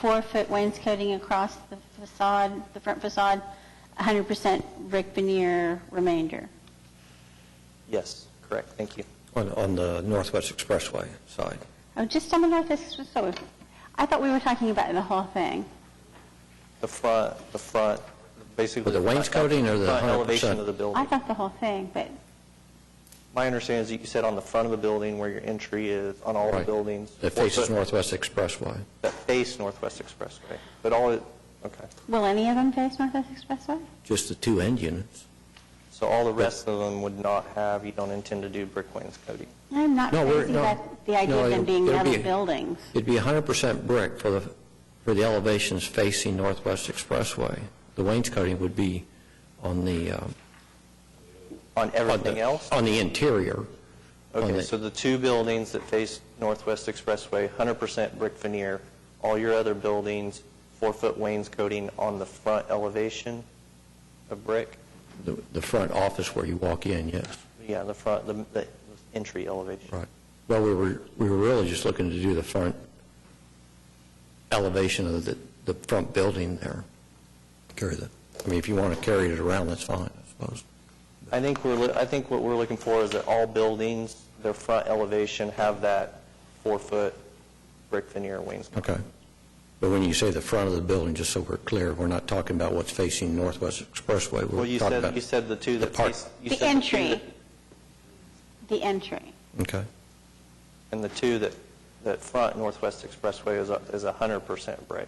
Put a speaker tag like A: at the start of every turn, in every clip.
A: four-foot wainscoting across the facade, the front facade, 100% brick veneer remainder.
B: Yes, correct, thank you.
C: On, on the Northwest Expressway side.
A: Oh, just some of that, this was so, I thought we were talking about the whole thing.
B: The front, the front, basically.
C: With the wainscoting or the
B: Front
C: 100%?
B: elevation of the
A: I
B: building.
A: thought the whole thing, but,
B: My understanding is that you said on the front of the building where your entry is, on all the
C: Right.
B: buildings.
C: That
B: four
C: faces
B: foot-
C: Northwest Expressway.
B: That face Northwest Expressway, but all, it- okay.
A: will any of them face Northwest Expressway?
C: Just the two end units.
B: So all the rest of them would not have, you don't intend to do brick wainscoting?
A: I'm not
C: No, we're-
A: crazy
C: no.
A: about the idea
C: No,
A: of them
C: it'll-
A: being
C: it'll
A: metal
C: be-
A: buildings.
C: It'd be 100% brick for the, for the elevations facing Northwest Expressway. The wainscoting would be on the... um,
B: On
C: on the-
B: everything else?
C: On the interior. on
B: Okay,
C: the-
B: so the two buildings that face Northwest Expressway, 100% brick veneer, all your other buildings, four-foot wainscoting on the front elevation of brick?
C: The the front office where you walk in, yes.
B: Yeah, the front, the the entry elevation.
C: Right. Well, we were, we were really just looking to do the front elevation of the, the front building there. Carry the, I mean, if you want to carry it around, that's fine, I suppose.
B: I think we're, loo- I think what we're looking for is that all buildings, their front elevation have that four-foot brick veneer wainscot.
C: Okay. But when you say the front of the building, just so we're clear, we're not talking about what's facing Northwest Expressway.
B: Well, you
C: We're talking
B: said,
C: about...
B: you said the two
C: the
B: that
C: part.
B: face... you
A: The
B: said two
A: entry,
B: that-
A: the entry.
C: Okay.
B: And the two that, that front Northwest Expressway is, a- is 100% brick,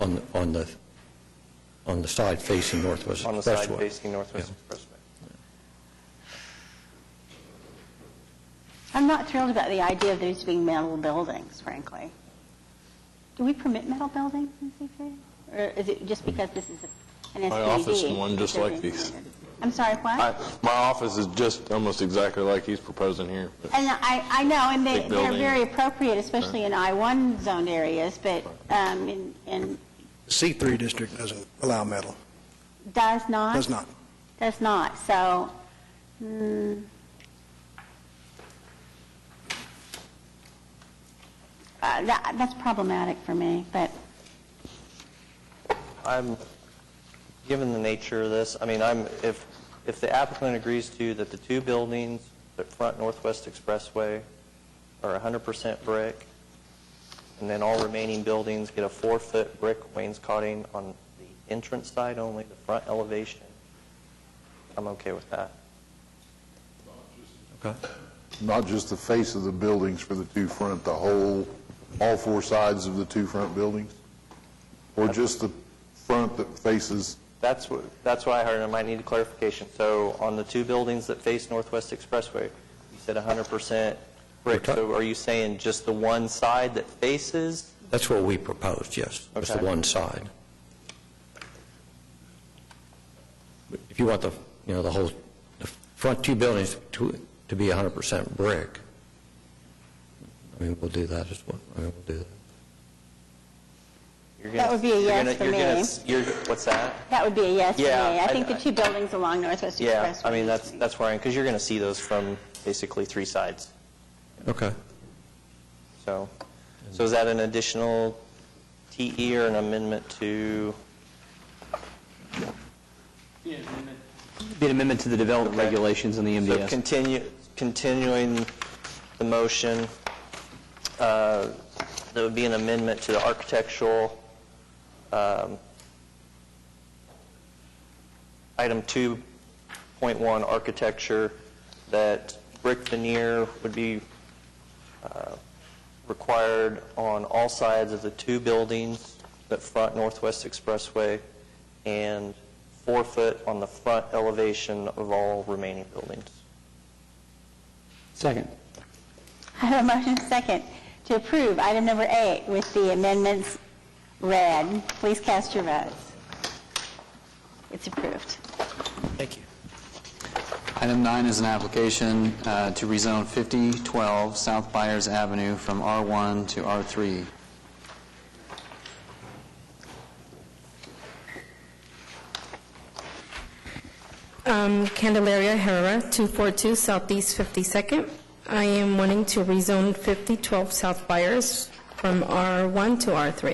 C: On, the- on the, on the side facing Northwest Expressway.
B: on the side facing Northwest Expressway.
A: I'm not thrilled about the idea of these being metal buildings, frankly. Do we permit metal buildings in C3? Or is it just because this is a- an SPD?
D: My office is one just like these.
A: I'm sorry,
D: I-
A: what?
D: My office is just almost exactly like he's proposing here. but-
A: And I, I know, and they,
D: Big
A: they're
D: building.
A: very appropriate, especially in I-1 zoned areas, but, um, in, in,
E: C3 district doesn't allow metal,
A: does not?
E: does not.
A: Does not, so, hmm. Uh, that, that's problematic for me, but
B: I'm, given the nature of this, I mean, I'm, if, if the applicant agrees to that the two buildings that front Northwest Expressway are 100% brick, and then all remaining buildings get a four-foot brick wainscoting on the entrance side only, the front elevation, I'm okay with that.
F: Not just the face of the buildings for the two front, the whole, all four sides of the two front buildings? Or just the front that faces,
B: That's what, that's why I heard, I might need clarification. So on the two buildings that face Northwest Expressway, you said 100% brick.
C: We're ta-
B: So are you saying just the one side that faces?
C: That's what we proposed, yes. Just the
B: Okay.
C: one side. But If you want the, you know, the whole, the front two buildings to, to be 100% brick, I mean, we'll do that as well, I mean, we'll do that.
B: You're
A: That
B: gonna-
A: would be a
B: you're
A: yes
B: gonna-
A: for
B: you're gonna
A: me.
B: s- You're, what's that?
A: that would be a yes for me.
B: Yeah,
A: I
B: I-
A: think the
B: I-
A: two buildings along Northwest Expressway.
B: Yeah, I mean, that's, that's where I am, because you're going to see those from basically three sides.
C: Okay.
B: So, so is that an additional TE or an amendment to,
G: Be an amendment to the development
B: Okay.
G: regulations on the
B: so
G: MDS.
B: continue, continuing the motion, uh, there would be an amendment to the architectural, um, item 2.1, architecture, that brick veneer would be uh, required on all sides of the two buildings that front Northwest Expressway, and four foot on the front elevation of all remaining buildings.
G: Second.
A: I have a motion second to approve item number eight with the amendments read. Please cast your votes. It's approved.
H: Item nine is an application uh, to rezone 5012 South Byers Avenue from R1 to R3.
I: Um, Candelaria Herrera, 242 Southeast 52nd. I am wanting to rezone 5012 South Byers from R1 to R3.